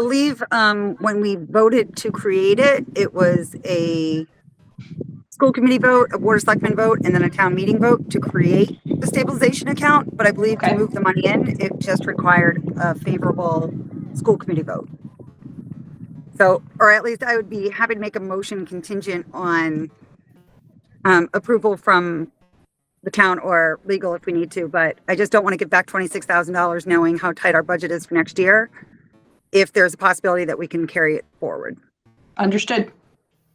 believe um, when we voted to create it, it was a school committee vote, a board of selectmen vote, and then a town meeting vote to create the stabilization account. But I believe to Okay. move the money in, it just required a favorable school committee vote. So, or at least I would be happy to make a motion contingent on um, approval from the town or legal if we need to, but I just don't want to give back twenty-six thousand dollars knowing how tight our budget is for next year. If there's a possibility that we can carry it forward. Understood.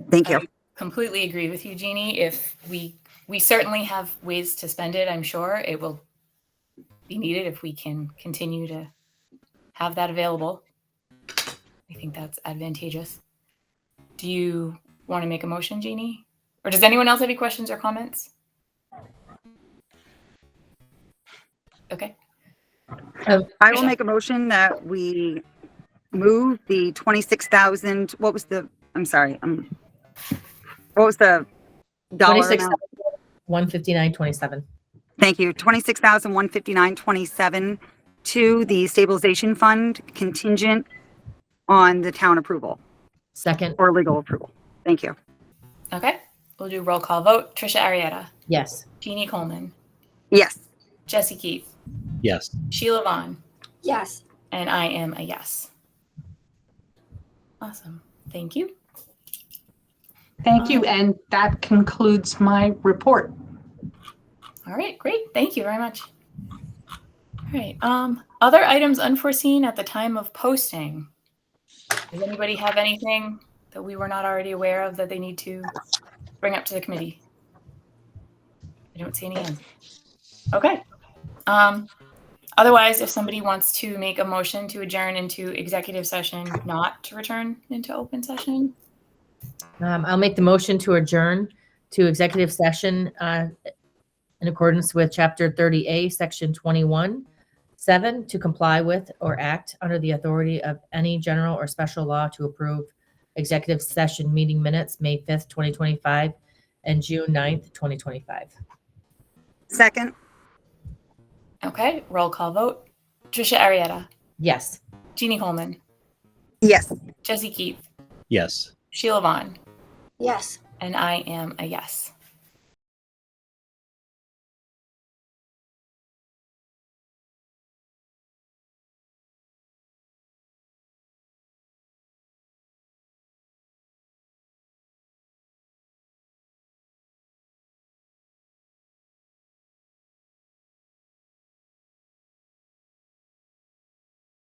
Thank you. completely agree with you, Jeannie. If we, we certainly have ways to spend it, I'm sure it will be needed if we can continue to have that available. I think that's advantageous. Do you want to make a motion, Jeannie? Or does anyone else have any questions or comments? Okay, I will Michelle. make a motion that we move the twenty-six thousand, what was the, I'm sorry, um, what was the dollar 26, amount? 159, 27. Thank you, twenty-six thousand, one fifty-nine, twenty-seven to the stabilization fund contingent on the town approval Second, or legal approval. Thank you. okay. We'll do roll call vote. Trisha Arietta, yes. Jeannie Coleman, Yes. Jesse Keith, Yes. Sheila Vaughn, Yes. And I am a yes. Awesome. Thank you. Thank you. And that concludes my report. All right, great. Thank you very much. All right. Um, other items unforeseen at the time of posting. Does anybody have anything that we were not already aware of that they need to bring up to the committee? I don't see any hands. Okay. Um, otherwise, if somebody wants to make a motion to adjourn into executive session, not to return into open session, Um, I'll make the motion to adjourn to executive session uh, in accordance with Chapter 30A, Section 21, 7, to comply with or act under the authority of any general or special law to approve executive session meeting minutes, May 5th, 2025, and June 9th, 2025. Second? Okay, roll call vote. Trisha Arietta, Yes. Jeannie Coleman, Yes. Jesse Keith, Yes. Sheila Vaughn, Yes. and I am a yes.